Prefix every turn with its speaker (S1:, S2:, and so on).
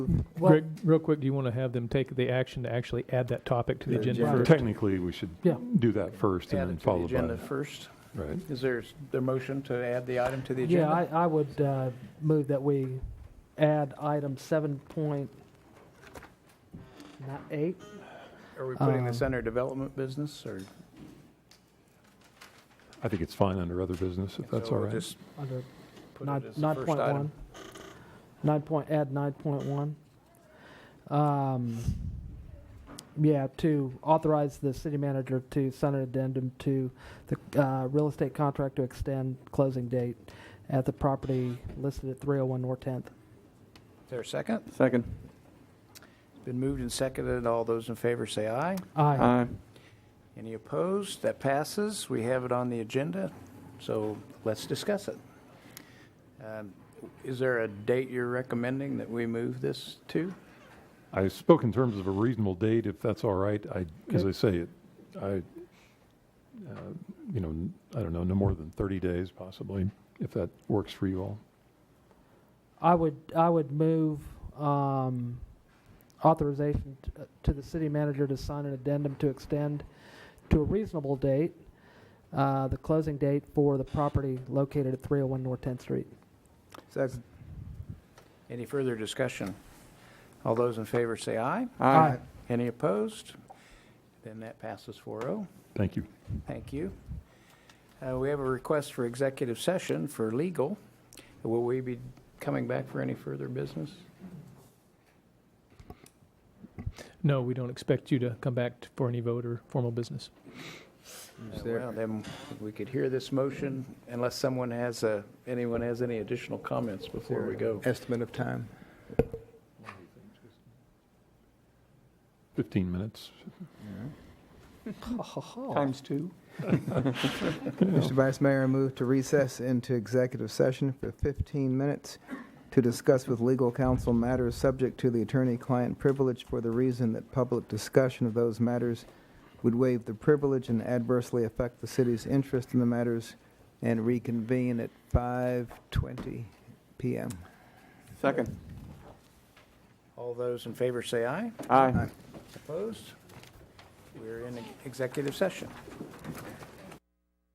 S1: Well-
S2: Greg, real quick, do you want to have them take the action to actually add that topic to the agenda
S1: agenda.
S2: first?
S3: Technically, we should
S2: Yeah.
S3: do that first and
S4: Add
S3: then
S4: it to the
S3: followed by,
S4: agenda first.
S3: right?
S4: Is there a motion to add the item to the
S1: Yeah,
S4: agenda?
S1: I, I would uh, move that we add item seven point not eight.
S4: Are we putting this
S1: um,
S4: under development business or?
S3: I think it's fine under other business, if that's
S4: so
S3: all
S4: we'll
S3: right.
S4: just
S1: under
S4: put
S1: nine,
S4: it as the
S1: nine
S4: first
S1: point
S4: item.
S1: one. Nine point add nine point one. Um, yeah, to authorize the city manager to send an addendum to the uh, real estate contract to extend closing date at the property listed at 301 North 10th.
S4: Is there a second?
S5: Second.
S4: It's Been moved and seconded. All those in favor say aye.
S1: Aye.
S5: Aye.
S4: Any opposed? That passes. We have it on the agenda, so let's discuss it. Um, Is there a date you're recommending that we move this to?
S3: I spoke in terms of a reasonable date, if that's all right. I, as I say, it, I, uh, you know, n- I don't know, no more than 30 days possibly, if that works for you all.
S1: I would, I would move um, authorization t- uh, to the city manager to sign an addendum to extend to a reasonable date, uh, the closing date for the property located at 301 North 10th Street.
S4: Second. Any further discussion? All those in favor say aye.
S1: Aye.
S4: Any opposed? Then that passes 4-0.
S3: Thank you.
S4: Thank you. Uh, We have a request for executive session for legal. Will we be coming back for any further business?
S2: No, we don't expect you to come back t- for any vote or formal business.
S4: Uh, Well, then we could hear this motion unless someone has, a- anyone has any additional comments before we go.
S5: Estimate of time.
S3: 15 minutes.
S5: Times two.
S3: Yeah.
S5: Mr. Vice Mayor, I move to recess into executive session for 15 minutes to discuss with legal counsel matters subject to the attorney-client privilege for the reason that public discussion of those matters would waive the privilege and adversely affect the city's interest in the matters and reconvene at 5:20 PM.
S6: Second.
S4: All those in favor say aye.
S6: Aye.
S4: Opposed? We're in executive session.